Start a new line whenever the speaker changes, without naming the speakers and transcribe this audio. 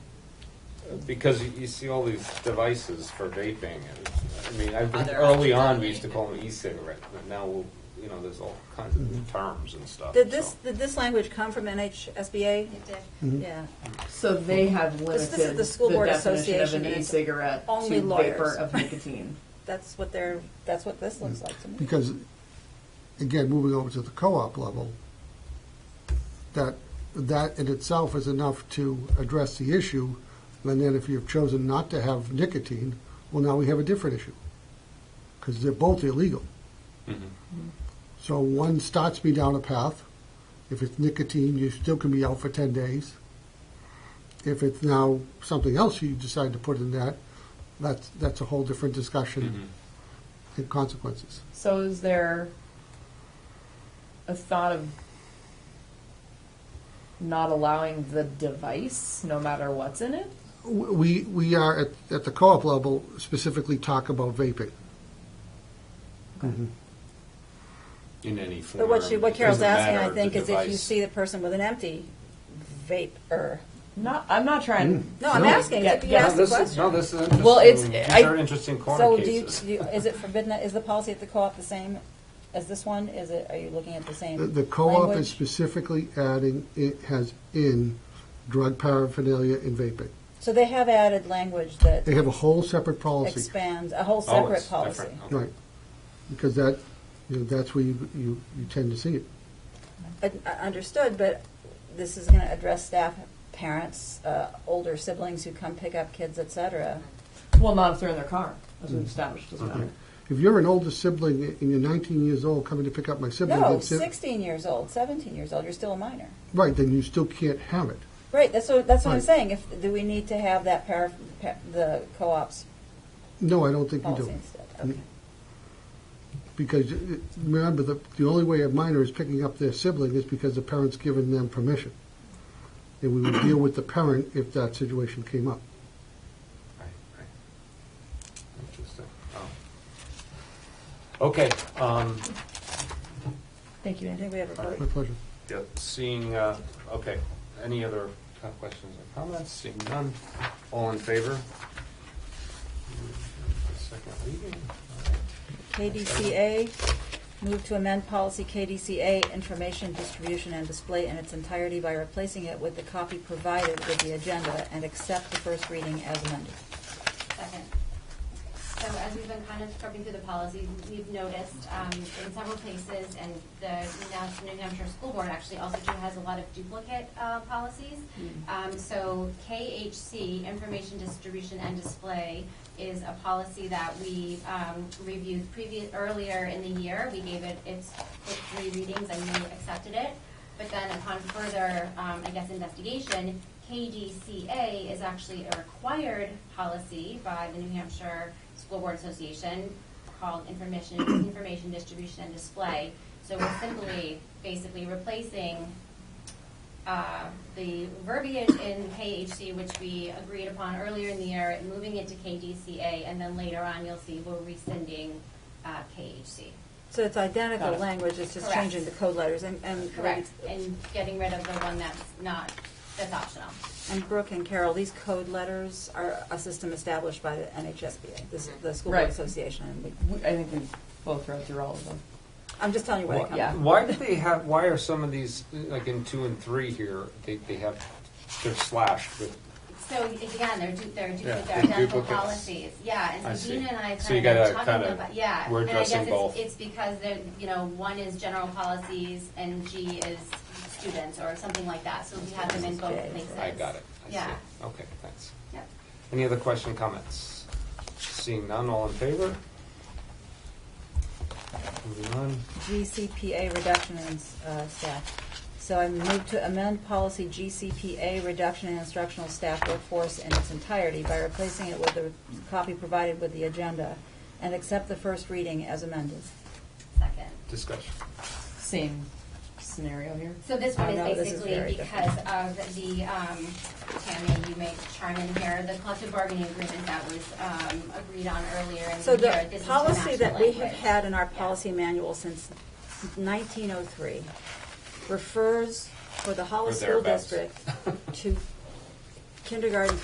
because you, you see all these devices for vaping, and I mean, I think
Other
early on
options.
we used to call them e-cigarette, but now we'll, you know, there's all kinds of new terms and stuff.
Did this,
so.
did this language come from NHSBA?
It did.
Mm-hmm.
Yeah.
So they have
This- this is
limited
the School
the
Board
definition of
Association
an
and it's
e-cigarette
only
to
lawyers.
vapor of nicotine.
That's what they're, that's what this looks like to me.
Because, again, moving over to the co-op level, that, that in itself is enough to address the issue. And then if you've chosen not to have nicotine, well, now we have a different issue. Because they're both illegal.
Mm-hmm.
So one starts me down a path. If it's nicotine, you still can be out for 10 days. If it's now something else you decide to put in that, that's, that's a whole different
Mm-hmm.
discussion and consequences.
So is there a thought of not allowing the device, no matter what's in it?
We, we are at, at the co-op level specifically talk about vaping.
In any form.
But what she, what
It
Carol's
doesn't
asking, I
matter
think,
the
is if you
device.
see the person with an empty vape-er.
Not, I'm not trying.
No, I'm
No.
asking,
Yeah,
if you
yeah.
No,
ask the
this is-
question.
No, this is interesting.
Well, it's-
These
I-
are interesting corner
So do you,
cases.
do you- is it forbidden, is the policy at the co-op the same as this one? Is it, are you looking at the same
The,
language?
the co-op is specifically adding, it has in drug paraphernalia and vaping.
So they have added language that
They have a whole separate policy.
expands, a whole
Oh,
separate
it's
policy.
different, okay.
Right. Because that, you know, that's where you, you, you tend to see it.
Un- uh, Understood, but this is going to address staff, parents, uh, older siblings who come pick up kids, et cetera.
Well, not if they're in their car, as we've established, doesn't matter.
If you're an older sibling and you're 19 years old coming to pick up my sibling,
No,
that's it.
16 years old, 17 years old, you're still a minor.
right, then you still can't have it.
Right, that's what, that's what I'm
Right.
saying. If, do we need to have that para, pa- the co-op's
No, I don't think you do. Mm-hmm.
policy instead? Okay.
Because uh, remember, the, the only way a minor is picking up their sibling is because the parent's given them permission. And we would deal with the parent if that situation came up.
Right, right. Interesting. Oh. Okay, um,
Thank you,
I
Andy.
think we have a vote.
My pleasure.
yeah, seeing, uh, okay, any other co- questions or comments? Seeing none, all in favor? Second reading. All right.
KDCA, move to amend policy KDCA, information distribution and display in its entirety by replacing it with the copy provided with the agenda and accept the first reading as amended.
Second.
So as we've been kind of scrubbing through the policies, we've noticed um, in several places, and the Nas- New Hampshire School Board actually also too has a lot of duplicate uh, policies. Um, So KHC, Information Distribution and Display, is a policy that we um, reviewed previous, earlier in the year. We gave it its its three readings and we accepted it. But then upon further, um, I guess, investigation, KDCA is actually a required policy by the New Hampshire School Board Association called information, information distribution and display. So we're simply basically replacing uh, the verbiage in KHC, which we agreed upon earlier in the year, and moving it to KDCA, and then later on, you'll see we're rescinding uh, KHC.
So it's identical
Got it.
language, it's just
Correct.
changing the code letters, and, and.
Correct, and getting rid of the one that's not, that's optional.
And Brooke and Carol, these code letters are a system established by the NHSBA, the, s- the School Board
Right.
Association. and we-
We- I think we've both read through all of them.
I'm just telling you where they
Why-
come
Yeah.
from.
Why do they have, why are some of these, like in two and three here, they, they have, they're slashed with,
So again, they're du- they're
Yeah,
duplicate,
they're
they're identical
duplicates.
policies, yeah,
I
and so
see.
Gina and I
So you
kind
gotta
of been
kinda-
talking about, yeah.
we're addressing
And I
both.
guess it's, it's because they're, you know, one is general policies and G is students or something like that, so we have them in both
Okay.
places.
I got it. I see.
Yeah.
Okay, thanks.
Yep.
Any other question, comments? Seeing none, all in favor? Moving on.
GCPA reduction in uh, staff. So I move to amend policy GCPA reduction in instructional staff workforce in its entirety by replacing it with the copy provided with the agenda and accept the first reading as amended.
Second.
Discussion.
Same scenario here.
So this one
Oh, no,
is
this is very
basically because of the, um, Tammy, you may chime in here, the collective bargaining agreement that was, um, agreed on earlier in
So
the
the
year. This is to
policy
match
that
the
we have
language.
had in our
Yeah.
policy manual since 1903 refers for the Hollis
Or
School
thereabouts.
District to kindergarten